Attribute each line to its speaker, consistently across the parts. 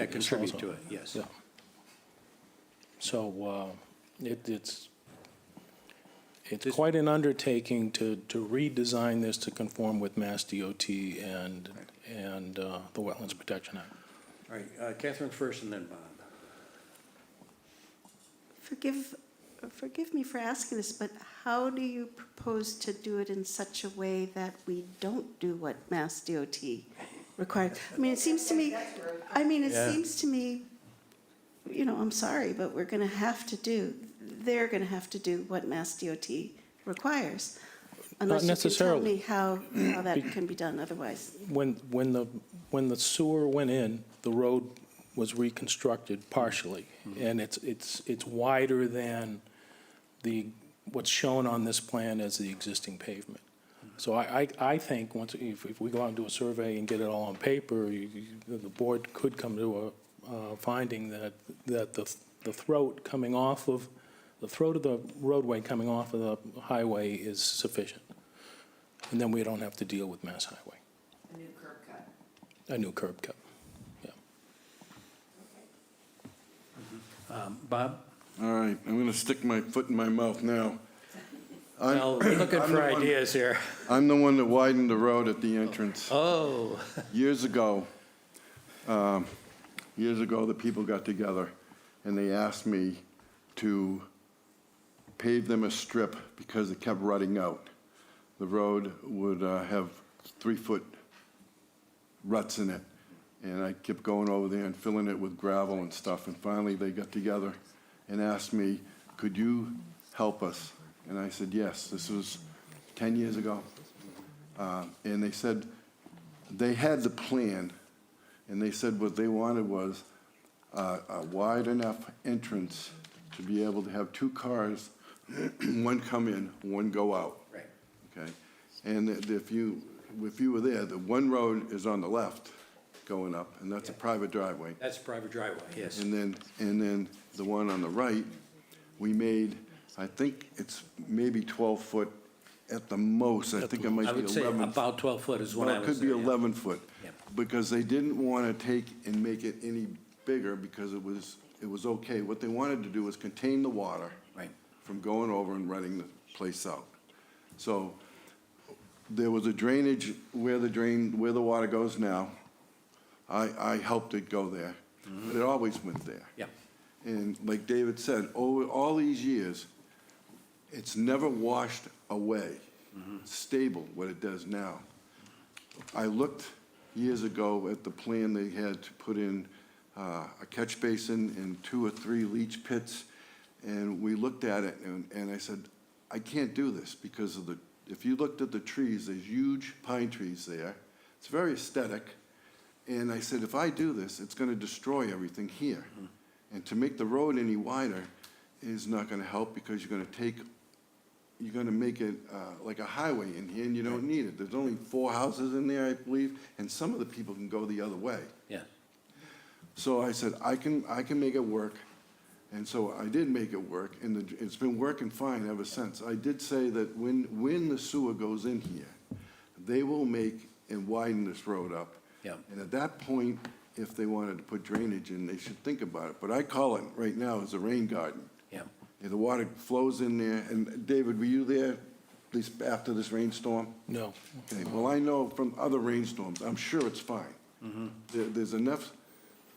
Speaker 1: That contribute
Speaker 2: also.
Speaker 1: to it, yes.
Speaker 2: Yeah. So uh, it- it's, it's quite an undertaking to to redesign this to conform with Mass DOT and, and uh, the Wetlands Protection Act.
Speaker 1: All right, uh, Catherine first and then Bob.
Speaker 3: Forgive, forgive me for asking this, but how do you propose to do it in such a way that we don't do what Mass DOT requires? I mean, it seems to me, I mean, it
Speaker 1: Yeah.
Speaker 3: seems to me, you know, I'm sorry, but we're gonna have to do, they're gonna have to do what Mass DOT requires. Unless you can tell
Speaker 2: necessarily.
Speaker 3: me how, how that can be done otherwise.
Speaker 2: When, when the, when the sewer went in, the road was reconstructed partially, and it's, it's, it's wider than the, what's shown on this plan as the existing pavement. So I, I, I think, once, if, if we go out and do a survey and get it all on paper, you, you- the board could come to a, uh, finding that, that the, the throat coming off of, the throat of the roadway coming off of the highway is sufficient. And then we don't have to deal with Mass Highway.
Speaker 4: a new curb cut.
Speaker 2: A new curb cut.
Speaker 1: Um, Bob?
Speaker 5: All right, I'm going to stick my foot in my mouth now. I'm-
Speaker 1: Well, we're looking
Speaker 5: I'm
Speaker 1: for
Speaker 5: the one-
Speaker 1: ideas here.
Speaker 5: I'm the one that widened the road at the entrance
Speaker 1: Oh,
Speaker 5: years ago. um, Years ago, the people got together and they asked me to pave them a strip because it kept rutting out. The road would uh, have three-foot ruts in it. And I kept going over there and filling it with gravel and stuff. And finally, they got together and asked me, could you help us? And I said, yes. This was 10 years ago. Uh, And they said, they had the plan, and they said what they wanted was uh, a wide enough entrance to be able to have two cars, one come in, one go out
Speaker 1: right.
Speaker 5: okay? And if if you, if you were there, the one road is on the left going up, and that's a private driveway.
Speaker 1: That's private driveway, yes.
Speaker 5: And then, and then the one on the right, we made, I think it's maybe 12 foot at the most. I think it might
Speaker 1: I
Speaker 5: be
Speaker 1: would say
Speaker 5: 11.
Speaker 1: about 12 foot is what
Speaker 5: Well,
Speaker 1: I
Speaker 5: it
Speaker 1: would
Speaker 5: could
Speaker 1: say,
Speaker 5: be
Speaker 1: yeah.
Speaker 5: 11 foot,
Speaker 1: Yep.
Speaker 5: because they didn't want to take and make it any bigger because it was, it was okay. What they wanted to do was contain the water
Speaker 1: Right.
Speaker 5: from going over and running the place out. So there was a drainage where the drain, where the water goes now. I, I helped it go there, but it always went there.
Speaker 1: Mm-hmm. Yeah.
Speaker 5: And like David said, over all these years, it's never washed away,
Speaker 1: Mm-hmm.
Speaker 5: stable, what it does now. I looked years ago at the plan they had to put in uh, a catch basin and two or three leach pits, and we looked at it, and, and I said, I can't do this because of the, if you looked at the trees, there's huge pine trees there. It's very aesthetic. And I said, if I do this, it's going to destroy everything here. And to make the road any wider is not going to help because you're going to take you're gonna make it uh, like a highway in here, and you don't need it. There's only four houses in there, I believe, and some of the people can go the other way.
Speaker 1: Yeah.
Speaker 5: So I said, I can, I can make it work, and so I did make it work, and the- it's been working fine ever since. I did say that when, when the sewer goes in here, they will make and widen this road up.
Speaker 1: Yeah.
Speaker 5: And at that point, if they wanted to put drainage in, they should think about it. But I call it, right now, is a rain garden.
Speaker 1: Yeah.
Speaker 5: Yeah, the water flows in there, and David, were you there, at least after this rainstorm?
Speaker 2: No.
Speaker 5: Okay, well, I know from other rainstorms, I'm sure it's fine. There, there's enough,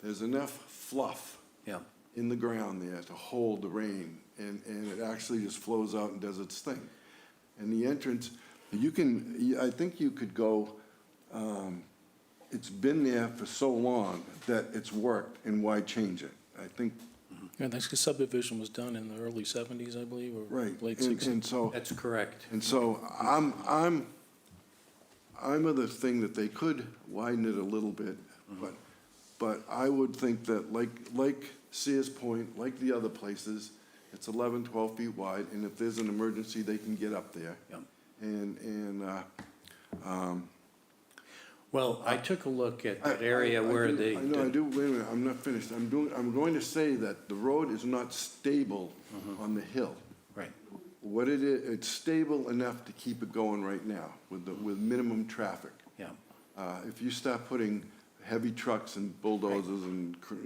Speaker 5: there's enough fluff
Speaker 1: Yeah.
Speaker 5: in the ground there to hold the rain, and, and it actually just flows out and does its thing. And the entrance, you can, I think you could go, um, it's been there for so long that it's worked, and why change it? I think,
Speaker 2: Yeah, that's 'cause subdivision was done in the early 70s, I believe, or
Speaker 5: right.
Speaker 2: late
Speaker 5: and-
Speaker 2: 60s.
Speaker 5: And so.
Speaker 1: That's correct.
Speaker 5: And so I'm, I'm, I'm of the thing that they could widen it a little bit,
Speaker 1: Mm-hmm.
Speaker 5: but, but I would think that like, like Sears Point, like the other places, it's 11, 12 feet wide, and if there's an emergency, they can get up there.
Speaker 1: Yeah.
Speaker 5: And, and, uh,
Speaker 1: Well, I took a look at that
Speaker 5: I-
Speaker 1: area
Speaker 5: I- I
Speaker 1: where
Speaker 5: do-
Speaker 1: the.
Speaker 5: I know, I do, wait a minute, I'm not finished. I'm doing, I'm going to say that the road is not stable
Speaker 1: Mm-hmm.
Speaker 5: on the hill.
Speaker 1: Right.
Speaker 5: What it is, it's stable enough to keep it going right now with, the with minimum traffic.
Speaker 1: Yeah.
Speaker 5: Uh, If you start putting heavy trucks and bulldozers and cr-